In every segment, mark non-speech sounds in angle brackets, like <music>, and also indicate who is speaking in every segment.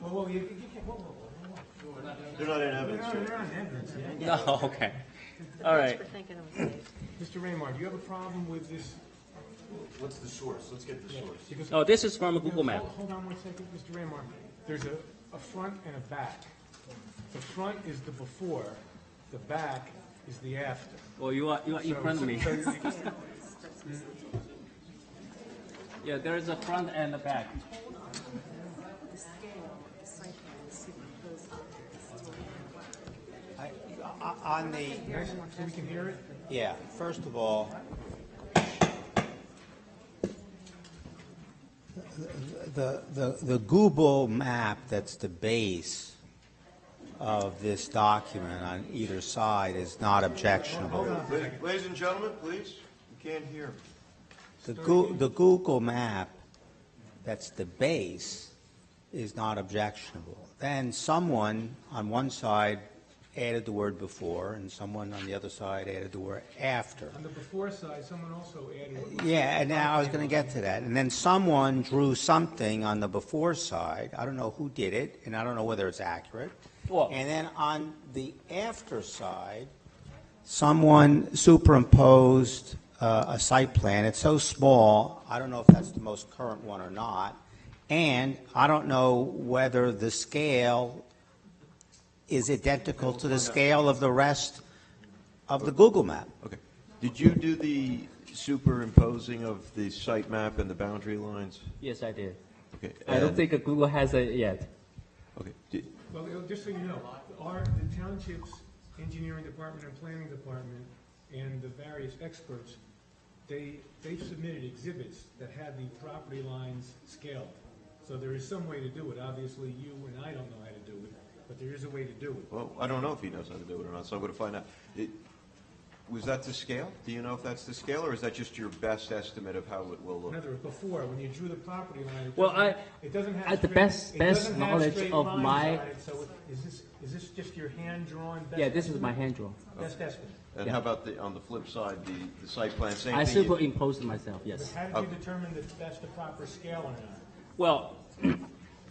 Speaker 1: Whoa, whoa, you, you can't, whoa, whoa, whoa.
Speaker 2: They're not in
Speaker 1: You're
Speaker 2: evidence
Speaker 1: not,
Speaker 2: yet.
Speaker 1: you're not in evidence yet.
Speaker 3: <laughs> No, Oh, okay. All right.
Speaker 4: Thanks for thinking of me.
Speaker 1: Mr. Raymar, do you have a problem with this?
Speaker 2: What's the source? Let's get the source.
Speaker 1: Because-
Speaker 3: Oh, this is from a Google map.
Speaker 1: Hold- Hold on one second, Mr. Raymar. There's a, a front and a back. The front is the before, the back is the after.
Speaker 3: Oh, you are, you are in
Speaker 1: So-
Speaker 3: front of me.
Speaker 1: so you-
Speaker 3: Yeah, there is a front and a back.
Speaker 4: The scale, the site plan, superimposed on there, it's all
Speaker 5: I- o- On the,
Speaker 1: Nice, so we can hear it?
Speaker 5: yeah, first of all, the, the, the Google map that's the base of this document on either side is not objectionable.
Speaker 2: La- Ladies and gentlemen, please, you can't hear.
Speaker 5: The Goo, the Google map that's the base is not objectionable. Then someone on one side added the word before, and someone on the other side added the word after.
Speaker 1: On the before side, someone also added,
Speaker 5: Yeah, and now I was going to get to that. And then someone drew something on the before side. I don't know who did it, and I don't know whether it's accurate.
Speaker 3: Well-
Speaker 5: And then on the after side, someone superimposed uh, a site plan. It's so small, I don't know if that's the most current one or not. And I don't know whether the scale is identical to the scale of the rest of the Google map.
Speaker 2: Okay. Did you do the superimposing of the site map and the boundary lines?
Speaker 3: Yes, I did.
Speaker 2: Okay.
Speaker 3: I don't
Speaker 2: and-
Speaker 3: think Google has it yet.
Speaker 2: Okay. Did-
Speaker 1: well, you know, just so you know, our, the township's engineering department and planning department and the various experts, they, they've submitted exhibits that have the property lines scaled. So there is some way to do it. Obviously, you and I don't know how to do it, but there is a way to do it.
Speaker 2: Well, I don't know if he knows how to do it or not, so I'm going to find out. It- Was that the scale? Do you know if that's the scale, or is that just your best estimate of how it will look?
Speaker 1: Another, before, when you drew the property line, it
Speaker 3: Well,
Speaker 1: doesn't-
Speaker 3: I-
Speaker 1: it doesn't have.
Speaker 3: at the
Speaker 1: straight-
Speaker 3: best-
Speaker 1: it
Speaker 3: best
Speaker 1: doesn't have
Speaker 3: knowledge
Speaker 1: straight
Speaker 3: of
Speaker 1: lines
Speaker 3: my-
Speaker 1: on it. So it- is this, is this just your hand-drawn best?
Speaker 3: Yeah, this is my hand draw.
Speaker 1: Best estimate.
Speaker 2: And how about the, on the flip side, the, the site plan, same
Speaker 3: I
Speaker 2: thing? you-
Speaker 3: superimposed myself, yes.
Speaker 1: How did you determine that that's the proper scale or not?
Speaker 3: Well,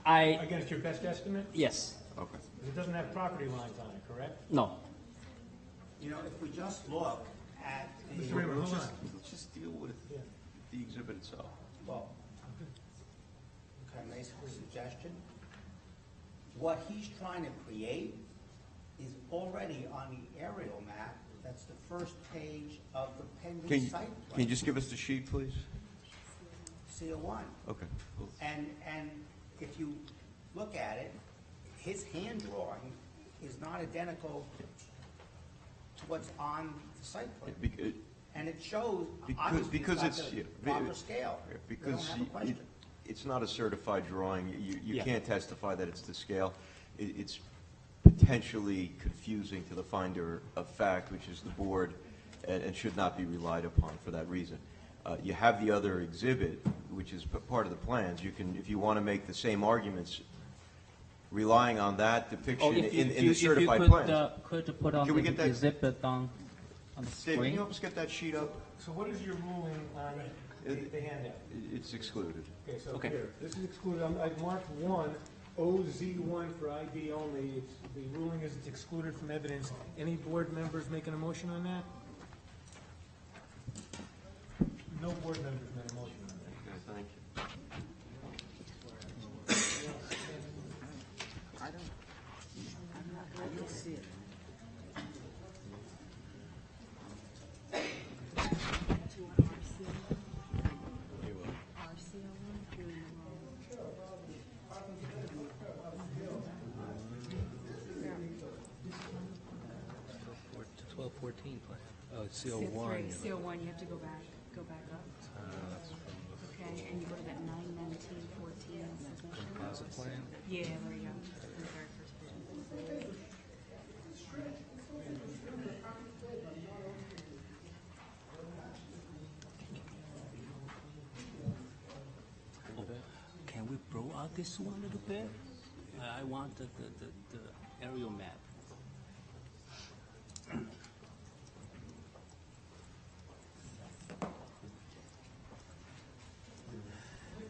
Speaker 3: I,
Speaker 1: Against your best estimate?
Speaker 3: yes,
Speaker 2: Okay.
Speaker 1: It doesn't have property lines on it, correct?
Speaker 3: no.
Speaker 5: You know, if we just look at the.
Speaker 1: Mr. Raymond, hold on.
Speaker 2: Just- Let's just deal with
Speaker 1: Yeah.
Speaker 2: the exhibit itself.
Speaker 5: Well, can I make a suggestion? What he's trying to create is already on the aerial map, that's the first page of the
Speaker 2: Can
Speaker 5: pending
Speaker 2: you,
Speaker 5: site
Speaker 2: can you
Speaker 5: plan,
Speaker 2: just give us the sheet, please?
Speaker 5: CO one.
Speaker 2: Okay, cool.
Speaker 5: And, and if you look at it, his hand drawing is not identical to what's on the site plan.
Speaker 2: Bec- uh,
Speaker 5: And it shows,
Speaker 2: Because,
Speaker 5: obviously, it's
Speaker 2: because
Speaker 5: not
Speaker 2: it's. yeah,
Speaker 5: the
Speaker 2: be-
Speaker 5: proper scale.
Speaker 2: yeah,
Speaker 5: They don't
Speaker 2: Because
Speaker 5: have a
Speaker 2: you-
Speaker 5: question.
Speaker 2: it- it's not a certified drawing. You, you
Speaker 3: Yeah.
Speaker 2: can't testify that it's the scale. It, it's potentially confusing to the finder of fact, which is the board, and, and should not be relied upon for that reason. Uh, you have the other exhibit, which is p- part of the plans. You can, if you want to make the same arguments, relying on that
Speaker 3: Oh,
Speaker 2: depiction
Speaker 3: if you-
Speaker 2: in, in
Speaker 3: if you-
Speaker 2: the
Speaker 3: if you
Speaker 2: certified
Speaker 3: could,
Speaker 2: plans.
Speaker 3: uh, Could put on
Speaker 2: Can we get
Speaker 3: the
Speaker 2: that-
Speaker 3: exhibit on, on the
Speaker 2: Dave, can you
Speaker 3: screen?
Speaker 2: help us get that sheet up?
Speaker 1: So what is your ruling on the the handout?
Speaker 2: It- It's excluded.
Speaker 1: Okay, so
Speaker 3: Okay.
Speaker 1: here, this is excluded, I'm- I've marked one, OZ1 for ID only. It's- The ruling is it's excluded from evidence. Any board members making a motion on that? No board members made a motion on that.
Speaker 2: Okay, thank you.
Speaker 4: to an RCO. RCO one, you're in the wrong.
Speaker 6: Twelve fourteen plan. Oh, it's CO
Speaker 4: Step
Speaker 6: one.
Speaker 4: three, CO one, you have to go back, go back up. Okay, and you go to that nine nineteen fourteen submission.
Speaker 6: Composite plan.
Speaker 4: Yeah, there you go. The very first page.
Speaker 3: Can we blow out this one a little bit? I- I want the, the, the- the aerial map.